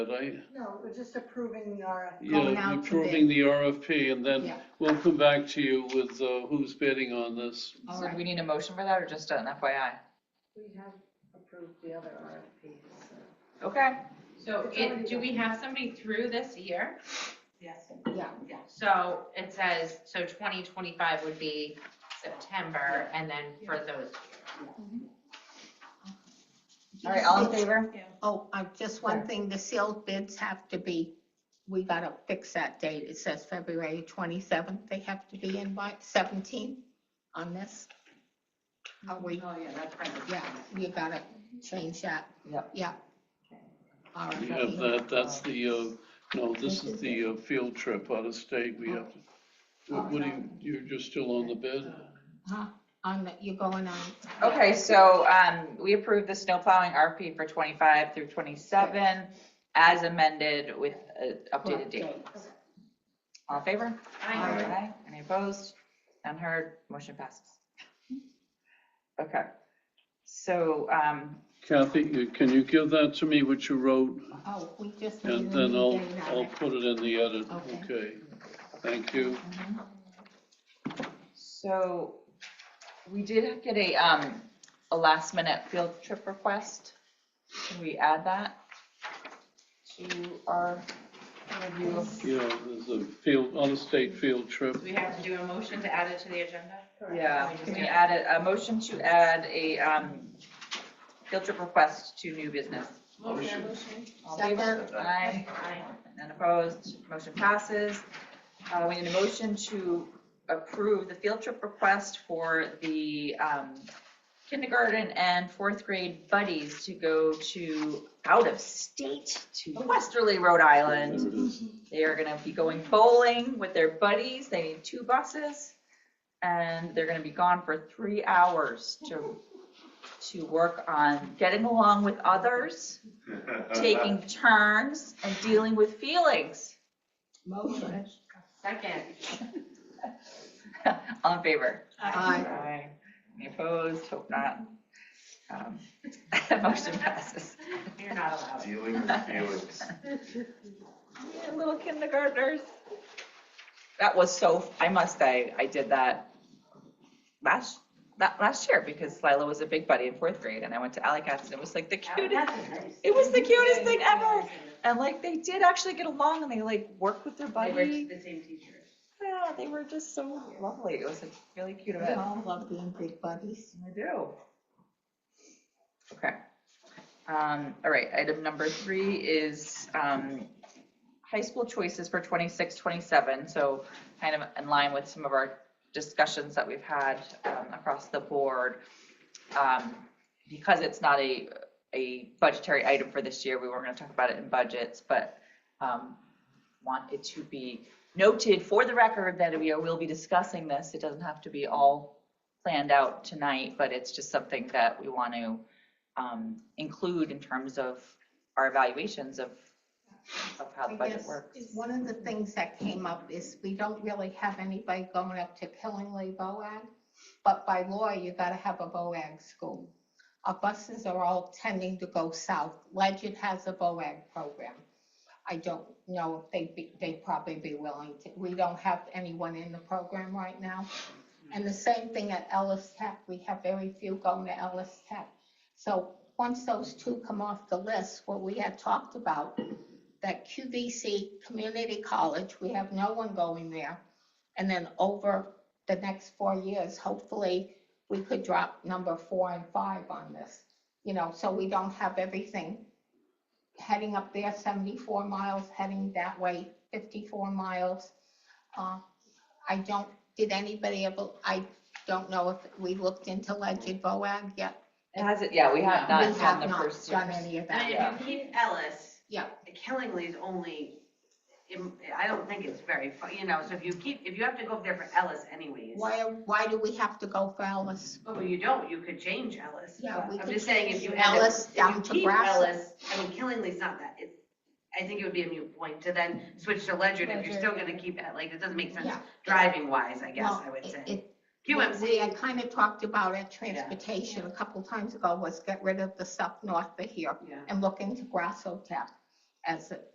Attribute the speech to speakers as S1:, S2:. S1: right?
S2: No, we're just approving the RFP.
S3: Going
S1: Yeah,
S3: out to
S1: approving the RFP, and then
S3: Yeah.
S1: we'll come back to you with uh, who's bidding on this.
S3: All
S4: So do
S3: right,
S4: we need a motion for that or just an FYI?
S2: We have approved the other RFPs. so.
S4: Okay.
S5: So
S2: It's already
S5: it, do
S2: done.
S5: we have somebody through this year?
S2: Yes.
S3: yeah,
S5: So it says, so twenty twenty-five would be September and then for those.
S4: All right, all in favor?
S3: oh, I, just one thing, the sealed bids have to be, we gotta fix that date. It says February twenty-seventh, they have to be in by seventeen on this. Are we,
S4: Oh, yeah, that's right.
S3: yeah, you gotta change that.
S4: Yep.
S3: Yeah. All
S1: We
S3: right.
S1: have that, that's the, uh, no, this is the uh, field trip out of state, we have to, what what do you, you're just still on the bid?
S3: Huh? On the, you're going on.
S4: Okay, so, um, we approved the snow plowing RFP for twenty-five through twenty-seven as amended with an updated
S3: Correct
S4: date.
S3: date.
S4: All in favor?
S3: Aye.
S4: Aye. Any opposed? None heard? Motion passes. Okay. So, um,
S1: Kathy, you- can you give that to me, what you wrote,
S3: Oh, we just need a
S1: and then
S3: new
S1: I'll,
S3: date on
S1: I'll
S3: it.
S1: put it in the edit,
S3: Okay.
S1: okay? Thank you.
S4: So we did get a, um, a last minute field trip request. Can we add that to our review? of-
S1: Yeah, there's a field, on a state field trip.
S5: Do we have to do a motion to add it to the agenda?
S4: Yeah, can we add it, a motion to add a, um, field trip request to new business?
S1: Motion.
S4: All in favor?
S3: Second.
S4: Aye. None opposed, motion passes. Uh, we need a motion to approve the field trip request for the, um, kindergarten and fourth grade buddies to go to out of state to Westerly, Rhode Island.
S1: There it is.
S4: They are gonna be going bowling with their buddies. They need two buses. And they're gonna be gone for three hours to, to work on getting along with others, taking turns and dealing with feelings.
S3: Motion.
S5: Second.
S4: All in favor?
S3: Aye.
S4: Aye. Any opposed? Hope not. Um, Motion passes.
S5: You're not allowed.
S6: Dealing with feelings.
S4: Yeah, Little kindergartners. That was so, I must say, I did that last, that last year because Lila was a big buddy in fourth grade and I went to Alley Cats and it was like the
S3: Uh,
S4: cutest. It was the cutest thing ever. And like, they did actually get along and they like worked with their
S5: They were
S4: buddy.
S5: the same teacher.
S4: Yeah, they were just so lovely. It was like really cute of
S3: We
S4: it.
S3: all love being big buddies.
S4: I do. Okay. Um, all right, item number three is, um, high school choices for 26, 27. So kind of in line with some of our discussions that we've had, um, across the board. Um, because it's not a, a budgetary item for this year, we weren't gonna talk about it in budgets, but, um, want it to be noted for the record that we will be discussing this. It doesn't have to be all planned out tonight, but it's just something that we want to um, include in terms of our evaluations of, of how the
S3: I
S4: budget
S3: guess
S4: works.
S3: One of the things that came up is we don't really have anybody going up to Killingly BOAG, but by law, you gotta have a BOAG school. Our buses are all tending to go south. Legend has a BOAG program. I don't know if they'd be, they'd probably be willing to, we don't have anyone in the program right now. And the same thing at Ellis Tech, we have very few going to Ellis Tech. So once those two come off the list, what we had talked about that QVC Community College, we have no one going there. And then over the next four years, hopefully, we could drop number four and five on this. You know, so we don't have everything heading up there seventy-four miles, heading that way fifty-four miles. Uh, I don't, did anybody ever, I don't know if we looked into Legend Boag yet.
S4: It has it, yeah, we have
S3: We
S4: not
S3: have
S4: done the
S3: not
S4: first.
S3: Done
S4: years.
S3: any of that.
S4: Yeah.
S7: And if you keep Ellis.
S3: Yeah.
S7: Killingly's only, im- I don't think it's very, fu- you know, so if you keep, if you have to go there for Ellis anyways.
S3: Why, why do we have to go for Ellis?
S7: Well, you don't, you could change Ellis.
S3: Yeah, we
S7: I'm
S3: could
S7: just saying if you
S3: change
S7: had. it-
S3: Ellis
S7: if
S3: down
S7: you
S3: to
S7: keep
S3: Grassy.
S7: Ellis, I mean, Killingly's not that, it's, I think it would be a moot point to then switch to Ledyard if you're
S3: Ledyard,
S7: still
S3: yeah.
S7: gonna keep it, like, it doesn't make sense
S3: Yeah.
S7: driving wise, I guess,
S3: Well,
S7: I would
S3: it-
S7: say.
S3: it- We
S7: QMC,
S3: had kind of talked about at transportation a couple times ago was get rid of the stuff north of here
S7: yeah,
S3: and look into Grasso Tech. as